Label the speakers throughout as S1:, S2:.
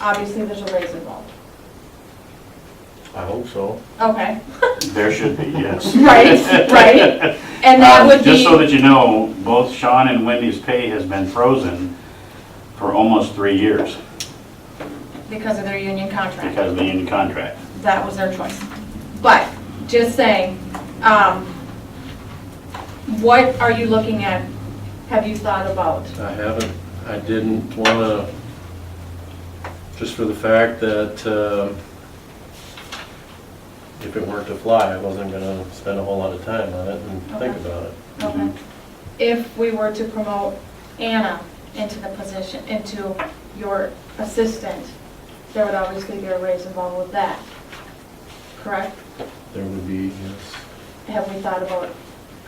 S1: obviously there's a raise involved.
S2: I hope so.
S1: Okay,
S3: There should be, yes.
S1: right, right? And that
S3: Um,
S1: would
S3: Just so
S1: be,
S3: that you know, both Sean and Wendy's pay has been frozen for almost three years
S1: because of their union contract.
S3: because of the union contract.
S1: that was their choice. But, just saying, um, what are you looking at? Have you thought about?
S2: I haven't, I didn't wanna, just for the fact that, um, if it weren't to fly, I wasn't gonna spend a whole lot of time on it and think
S1: Okay.
S2: about it.
S1: Okay. If we were to promote Anna into the position, into your assistant, there would obviously be a raise involved with that, correct?
S2: There would be, yes.
S1: Have we thought about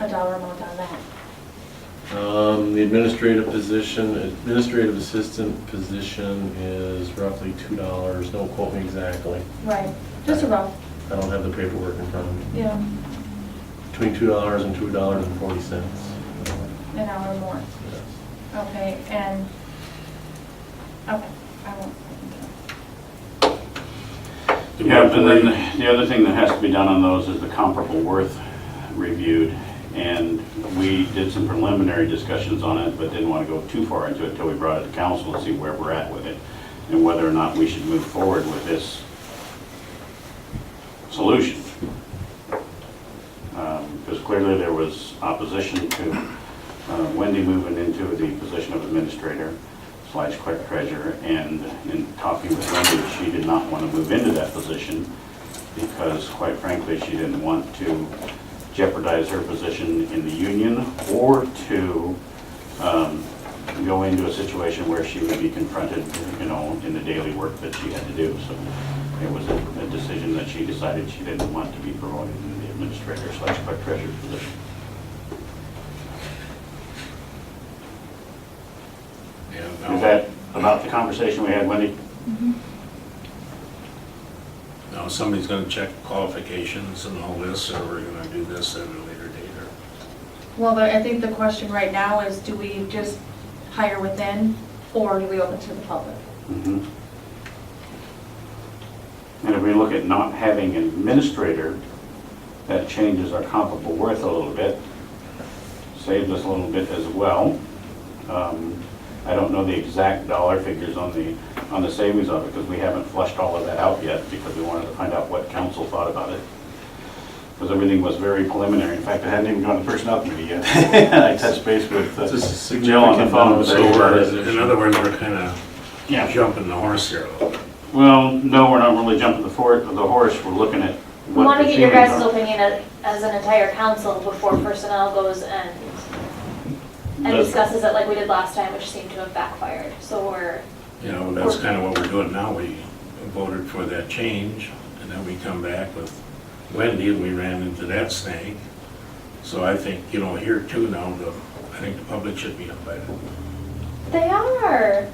S1: a dollar amount on that?
S2: Um, the administrative position, administrative assistant position is roughly two dollars, don't quote me exactly.
S1: Right, just a rough,
S2: I don't have the paperwork in front of me.
S1: yeah,
S2: Between two dollars and two dollars and forty cents.
S1: an hour more. Okay, and, okay, I won't.
S3: Yeah, and then the other thing that has to be done on those is the comparable worth reviewed. And we did some preliminary discussions on it, but didn't want to go too far into it until we brought it to council and see where we're at with it and whether or not we should move forward with this solution. Um, Because clearly there was opposition to uh, Wendy moving into the position of administrator slash clerk treasurer, and in talking with Wendy, she did not want to move into that position because quite frankly, she didn't want to jeopardize her position in the union or to um, go into a situation where she would be confronted, you know, in the daily work that she had to do. So it was a a decision that she decided she didn't want to be promoted in the administrator slash clerk treasurer position. Is
S4: Yeah,
S3: that about the conversation we had, Wendy?
S4: now, now somebody's gonna check qualifications and all this, or we're gonna do this at a later date, or,
S1: Well, the- I think the question right now is, do we just hire within, or do we open to the public?
S3: Mhm. Mm-hmm. And if we look at not having an administrator, that changes our comparable worth a little bit, saves us a little bit as well. Um, I don't know the exact dollar figures on the, on the savings of it, because we haven't flushed all of that out yet, because we wanted to find out what council thought about it. Because everything was very preliminary, in fact, I hadn't even gone to personnel committee yet. I touched base with uh,
S2: It's a significant
S3: Jill on the phone,
S2: amount of
S3: so
S4: so we're,
S2: Sure.
S4: in other words, we're kinda
S3: yeah,
S4: jumping the horse here a little bit.
S3: Well, no, we're not really jumping the for, the horse, we're looking at
S5: We
S3: what
S5: want
S3: the
S5: to get your
S3: feelings
S5: guys'
S3: are.
S5: opinion as- as an entire council before personnel goes and, and
S3: Does-
S5: discusses it like we did last time, which seemed to have backfired. So we're,
S4: You know, that's kinda what we're doing now, we voted for that change, and then we come back with Wendy, and we ran into that snag. So I think, you know, here too now, the, I think the public should be invited.
S5: they are.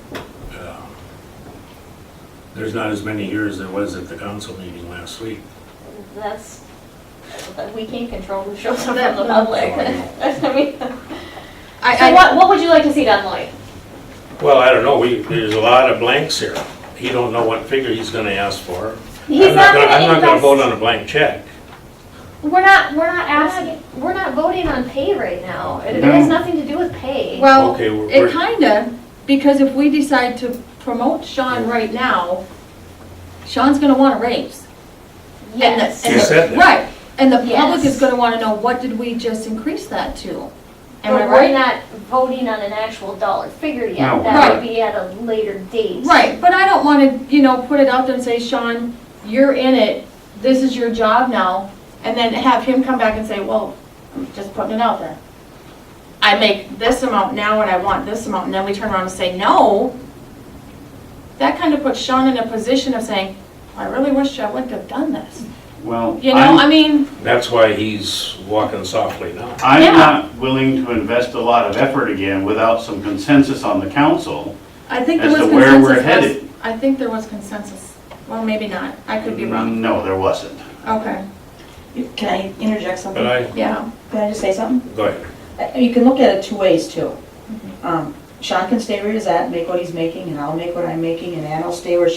S4: Uh, There's not as many here as there was at the council meeting last week.
S5: That's, we can't control who shows up
S1: That-
S5: from the public.
S4: Sorry.
S5: I mean,
S1: I,
S5: So
S1: I,
S5: what, what would you like to see done, Lloyd?
S4: Well, I don't know, we, there's a lot of blanks here. He don't know what figure he's gonna ask for.
S5: He's
S4: I'm not
S5: not
S4: gonna, I'm
S5: gonna
S4: not gonna vote on
S5: invest.
S4: a blank check.
S5: We're not, we're not asking, we're not voting on pay right now. It it
S3: No.
S5: has nothing to do with pay.
S1: well,
S4: Okay, we're-
S1: it kinda, because if we decide to promote Sean right now, Sean's gonna want a raise. And the-
S5: Yes.
S1: and
S4: You
S1: the-
S4: said that.
S1: Right, and the public
S5: Yes.
S1: is gonna wanna know, what did we just increase that to? Am I
S5: But we're
S1: right?
S5: not voting on an actual dollar figure
S3: No.
S5: yet. That
S1: Right.
S5: would be at a later date.
S1: Right, but I don't wanna, you know, put it out there and say, Sean, you're in it, this is your job now, and then have him come back and say, well, I'm just putting it out there. I make this amount now and I want this amount, and then we turn around and say, no. That kinda puts Sean in a position of saying, I really wish I wouldn't have done this,
S3: Well,
S1: you know, I
S3: I'm,
S1: mean,
S4: That's why he's walking softly now.
S1: Yeah.
S3: I'm not willing to invest a lot of effort again without some consensus on the council.
S1: I think there
S3: As
S1: was
S3: to where
S1: consensus.
S3: we're
S1: last-
S3: headed.
S1: I think there was consensus, well, maybe not, I could be wrong,
S3: No, there wasn't.
S1: okay,
S6: Can I interject something?
S4: But I,
S1: yeah,
S6: Can I just say something?
S4: go ahead.
S6: Uh, You can look at it two ways
S4: Mm-hmm.
S6: too. Um, Sean can stay where he's at, make what he's making, and I'll make what I'm making, and Ann will stay where